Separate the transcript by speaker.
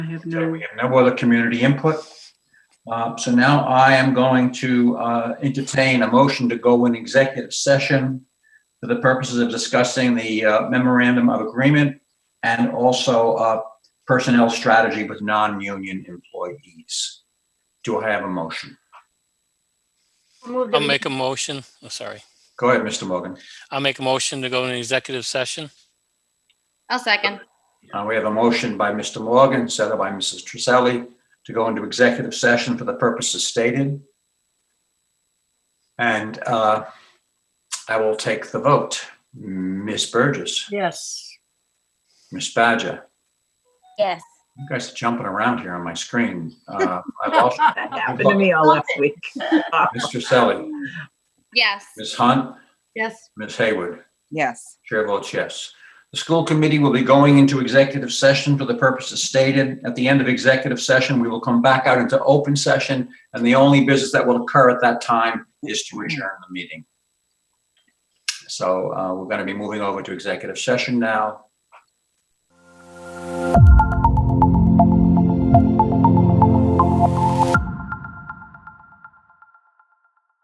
Speaker 1: I have
Speaker 2: Okay,
Speaker 1: no,
Speaker 2: we have no other community input. Uh, So now I am going to uh, entertain a motion to go in executive session for the purposes of discussing the uh, memorandum of agreement and also uh, personnel strategy with non-union employees. Do I have a motion?
Speaker 3: I'll make a motion, oh, sorry.
Speaker 2: Go ahead, Mr. Morgan.
Speaker 3: I'll make a motion to go into executive session.
Speaker 4: I'll second.
Speaker 2: Uh, We have a motion by Mr. Morgan, seconded by Mrs. Trisselli, to go into executive session for the purposes stated. And uh, I will take the vote. Ms. Burgess,
Speaker 1: yes.
Speaker 2: Ms. Badger,
Speaker 4: Yes.
Speaker 2: you guys are jumping around here on my screen. Uh, I've also,
Speaker 5: That happened to me all
Speaker 4: Stop
Speaker 5: last week.
Speaker 2: Ms. Trisselli,
Speaker 4: Yes.
Speaker 2: Ms. Hunt,
Speaker 1: Yes.
Speaker 2: Ms. Hayward.
Speaker 5: Yes.
Speaker 2: Chair votes yes. The school committee will be going into executive session for the purposes stated. At the end of executive session, we will come back out into open session, and the only business that will occur at that time is to adjourn the meeting. So uh, we're going to be moving over to executive session now.